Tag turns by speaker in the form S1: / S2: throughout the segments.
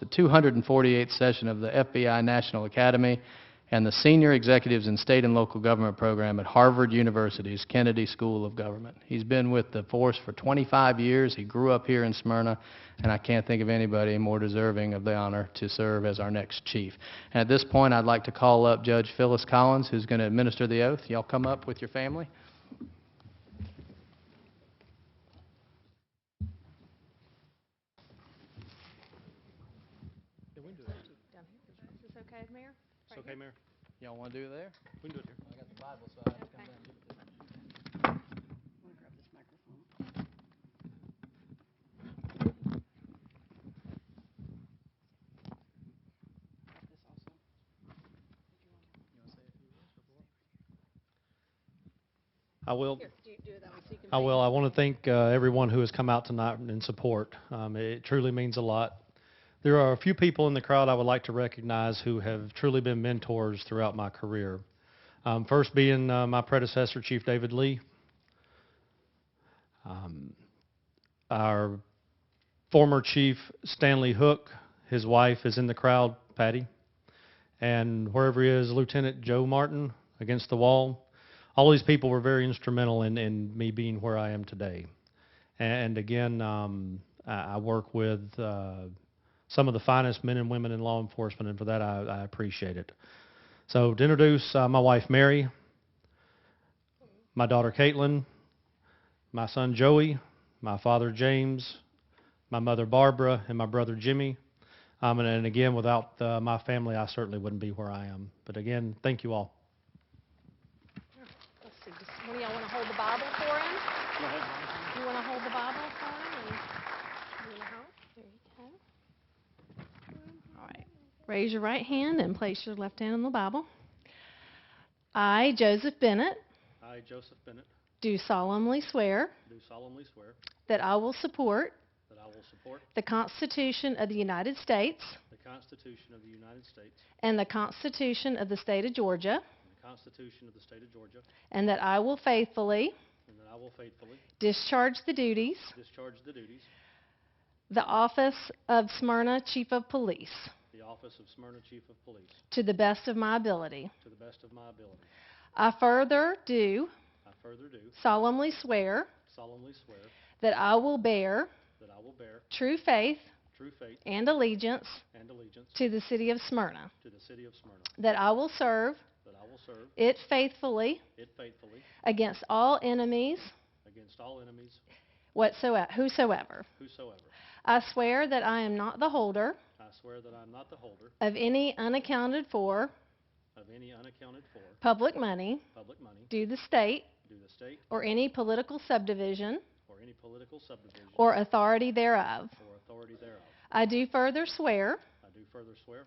S1: the 248th session of the FBI National Academy and the Senior Executives in State and Local Government Program at Harvard University's Kennedy School of Government. He's been with the force for 25 years. He grew up here in Smyrna, and I can't think of anybody more deserving of the honor to serve as our next chief. And at this point, I'd like to call up Judge Phyllis Collins, who's going to administer the oath. Y'all come up with your family.
S2: Down here. Is this okay, Mayor?
S3: It's okay, Mayor.
S1: Y'all want to do it there?
S3: We can do it here.
S1: I got the Bible, so I have to come down.
S3: I will,
S2: do you do it that way so you can
S3: I
S2: face
S3: will. I want to thank uh, everyone who has come out tonight in support. Um, It truly means a lot. There are a few people in the crowd I would like to recognize who have truly been mentors throughout my career. Um, First being uh, my predecessor, Chief David Lee. Um, Our former chief, Stanley Hook, his wife is in the crowd, Patty. And wherever he is, Lieutenant Joe Martin against the wall. all these people were very instrumental in, in me being where I am today. And again, um, I I work with uh, some of the finest men and women in law enforcement, and for that I, I appreciate it. So, to introduce uh, my wife Mary, my daughter Caitlin, my son Joey, my father James, my mother Barbara, and my brother Jimmy. Um, and, and again, without uh, my family, I certainly wouldn't be where I am. But again, thank you all.
S2: Let's see, does one of y'all want to hold the Bible for him? You want to hold the Bible for him? and- you wanna help? There you go. All right. Raise your right hand and place your left hand on the Bible. I, Joseph Bennett,
S3: I, Joseph Bennett,
S2: do solemnly swear
S3: do solemnly swear
S2: that I will support
S3: that I will support
S2: the Constitution of the United States
S3: the Constitution of the United States
S2: and the Constitution of the State of Georgia,
S3: and the Constitution of the State of Georgia,
S2: and that I will faithfully
S3: and that I will faithfully
S2: discharge the duties
S3: discharge the duties
S2: The office of Smyrna Chief of Police,
S3: of the office of Smyrna Chief of Police
S2: to the best of my ability.
S3: to the best of my ability.
S2: I further do
S3: I further do
S2: solemnly swear
S3: solemnly swear
S2: that I will bear
S3: that I will bear
S2: true faith
S3: true faith
S2: and allegiance
S3: and allegiance
S2: to the city of Smyrna,
S3: to the city of Smyrna,
S2: that I will serve
S3: that I will serve
S2: it faithfully
S3: it faithfully
S2: against all enemies
S3: against all enemies
S2: whatsoever, whosoever.
S3: whosoever.
S2: I swear that I am not the holder
S3: I swear that I am not the holder
S2: of any unaccounted for
S3: of any unaccounted for
S2: public money
S3: public money
S2: due the state
S3: due the state
S2: or any political subdivision
S3: or any political subdivision or
S2: or authority thereof.
S3: authority thereof.
S2: I do further swear
S3: I do further swear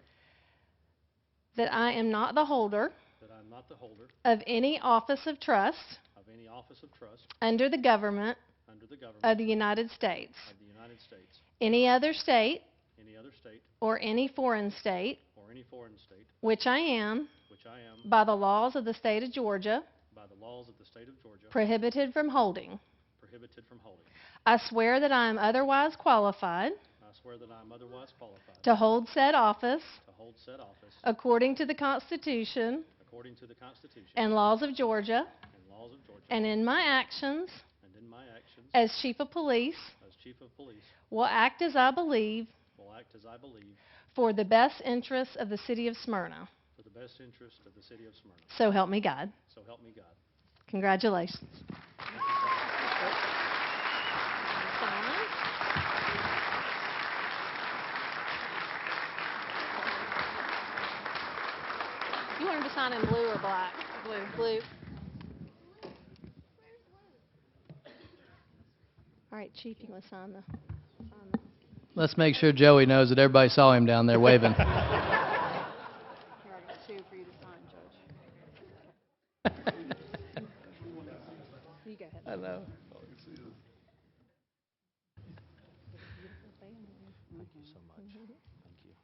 S2: that I am not the holder
S3: that I am not the holder
S2: of any office of trust
S3: of any office of trust
S2: under the government
S3: under the
S2: of
S3: government
S2: the United States,
S3: of the United States,
S2: any other state,
S3: any other state,
S2: or any foreign state,
S3: or any foreign state,
S2: which I am,
S3: which I am,
S2: by the laws of the state of Georgia,
S3: by the laws of the state of Georgia,
S2: prohibited from holding.
S3: prohibited from holding.
S2: I swear that I am otherwise qualified
S3: I swear that I am otherwise qualified
S2: to hold said office
S3: to hold said office
S2: according to the Constitution
S3: according to the Constitution
S2: and laws of Georgia,
S3: and laws of Georgia,
S2: and in my actions
S3: and in my actions
S2: as chief of police
S3: as chief of police
S2: will act as I believe
S3: will act as I believe
S2: for the best interests of the city of Smyrna.
S3: for the best interest of the city of Smyrna.
S2: So help me God.
S3: So help me God.
S2: Congratulations. You want him to sign in blue or black? Blue. Blue. All right, Chief, you want to sign the, sign the,
S1: Let's make sure Joey knows that everybody saw him down there waving.
S2: here, I got two for you to sign, Judge. You go ahead.
S1: I know.
S2: Mm-hmm.
S3: Thank you so much. Thank you.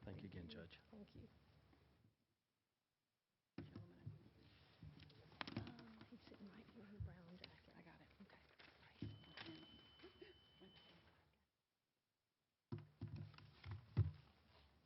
S3: Thank you again, Judge.
S2: Thank you.